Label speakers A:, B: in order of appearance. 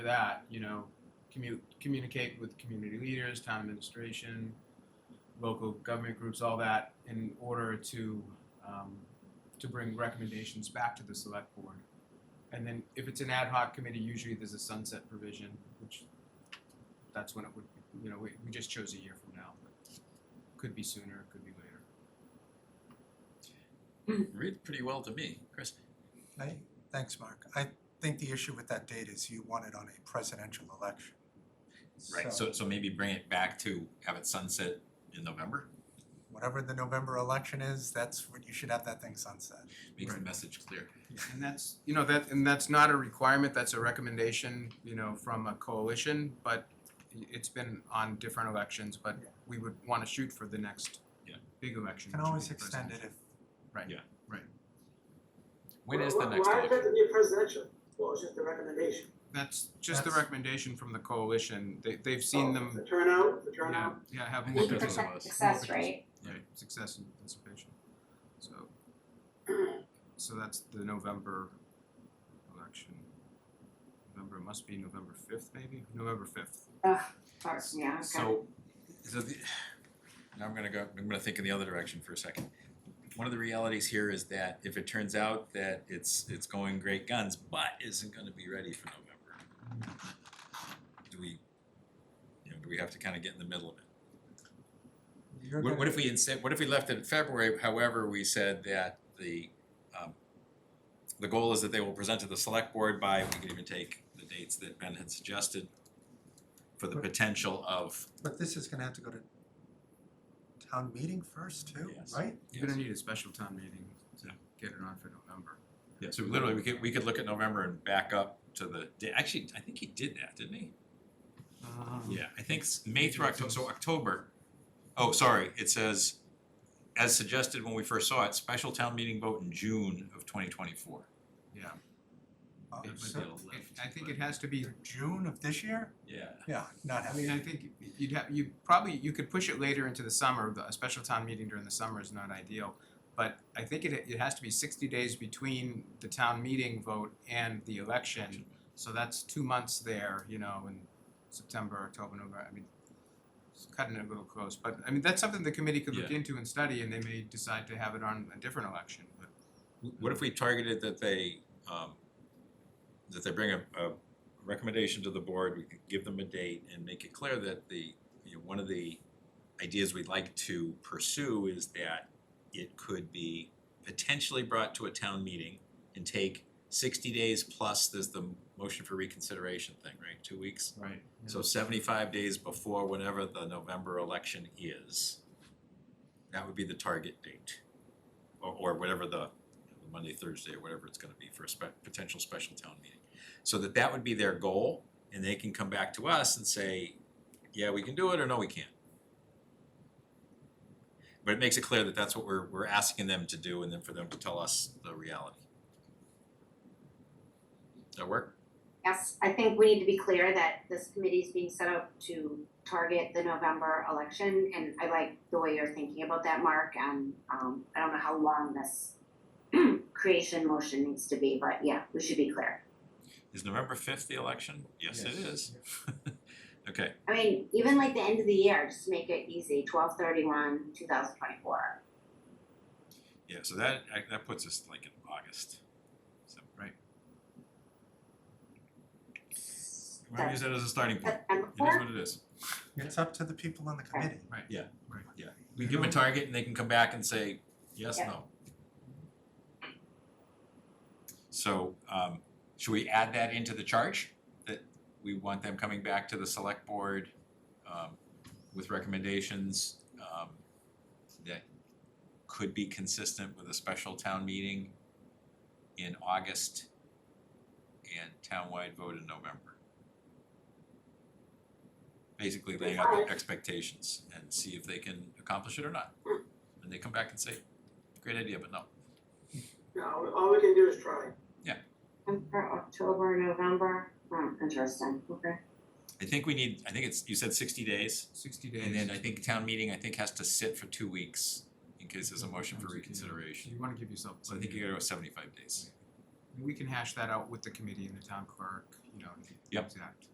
A: that, you know, commu- communicate with community leaders, town administration, local government groups, all that, in order to, um, to bring recommendations back to the select board. And then if it's an ad hoc committee, usually there's a sunset provision, which that's when it would, you know, we, we just chose a year from now, but could be sooner, could be later.
B: Reads pretty well to me, Chris.
C: I, thanks, Mark. I think the issue with that date is you want it on a presidential election.
B: Right, so so maybe bring it back to have it sunset in November,
C: Whatever the November election is, that's what, you should have that thing sunset.
B: makes the message clear.
A: And that's, you know, that, and that's not a requirement, that's a recommendation, you know, from a coalition, but i- it's been on different elections, but
C: Yeah.
A: we would wanna shoot for the next
B: Yeah.
A: big election.
C: Can
A: which would
C: always
A: be the
C: extend it
A: presidential.
C: if,
B: When is
D: Why-
B: the next
D: Why does it have
B: election?
D: to be presidential? Well, it's just a recommendation.
A: That's just the
C: That's-
A: recommendation from the coalition, they, they've seen
D: Oh,
A: them,
D: The turnout, the
A: yeah,
D: turnout.
A: yeah, have
B: I
A: more
B: think it's
A: participation,
B: a-
E: percent success rate.
A: right, success and participation, so. So that's the November election. November, it must be November fifth maybe, November fifth.
E: Or- yeah, okay.
B: So, so the, now I'm gonna go, I'm gonna think in the other direction for a second. One of the realities here is that if it turns out that it's, it's going great guns, but isn't gonna be ready for November, do we, you know, do we have to kinda get in the middle of it?
C: you're
B: What, what
C: gonna,
B: if we instead, what if we left it in February, however, we said that the, um, the goal is that they will present to the select board by, we can even take the dates that Ben had suggested for the potential of,
C: but this is gonna have to go to town meeting first too,
B: Yes.
C: right?
A: You're gonna need a special town meeting to
B: Yeah.
A: get it on for November.
B: yeah, so literally, we could, we could look at November and back up to the, da- actually, I think he did that, didn't he?
A: Um,
B: Yeah, I think s- May through October, so October, oh, sorry, it says, as suggested when we first saw it, special town meeting vote in June of twenty twenty-four.
A: Yeah,
C: Oh,
A: it would-
C: so-
A: it- I think it has to be,
C: June of this year?
B: Yeah.
C: Yeah, not
A: I
C: having,
A: mean, I think you'd have, you probably, you could push it later into the summer, but a special town meeting during the summer is not ideal. But I think it, it has to be sixty days between the town meeting vote and the election, so that's two months there, you know, in September, October, November, I mean, it's cutting it a little close, but I mean, that's something the committee could look
B: Yeah.
A: into and study, and they may decide to have it on a different election, but
B: What if we targeted that they, um, that they bring a, a recommendation to the board, we could give them a date and make it clear that the, you know, one of the ideas we'd like to pursue is that it could be potentially brought to a town meeting and take sixty days plus, there's the motion for reconsideration thing, right, two weeks?
A: Right.
B: So seventy-five days before whenever the November election is, that would be the target date. Or, or whatever the, the Monday, Thursday, or whatever it's gonna be for a spe- potential special town meeting. So that that would be their goal, and they can come back to us and say, yeah, we can do it, or no, we can't. But it makes it clear that that's what we're, we're asking them to do, and then for them to tell us the reality. Does that work?
E: Yes, I think we need to be clear that this committee is being set up to target the November election, and I like the way you're thinking about that, Mark, and, um, I don't know how long this creation motion needs to be, but yeah, we should be clear.
B: Is November fifth the election? Yes, it is. Okay,
E: I mean, even like the end of the year, just make it easy, twelve thirty-one, two thousand twenty-four.
B: yeah, so that, I- that puts us like in August. So, right, we to use that as a starting point.
E: And
B: It is what it is.
C: it's up to the people on the committee.
B: We give them a target and they can come back and say, yes,
E: Yeah.
B: no. So, um, should we add that into the charge? That we want them coming back to the select board, um, with recommendations, um, that could be consistent with a special town meeting in August and townwide vote in November. Basically laying out the expectations and see if they can accomplish it or not. And they come back and say, great idea, but no.
D: No, all we can do is try.
E: And for October, November, hmm, interesting, okay.
B: I think we need, I think it's, you said sixty days,
A: sixty days.
B: and then I think town meeting, I think has to sit for two weeks in case there's a motion
A: Sometimes
B: for
A: you can-
B: reconsideration.
A: You wanna give yourself.
B: So I think you gotta go seventy-five days.
A: we can hash that out with the committee and the town clerk, you know, to get the
B: Yep.
A: exact.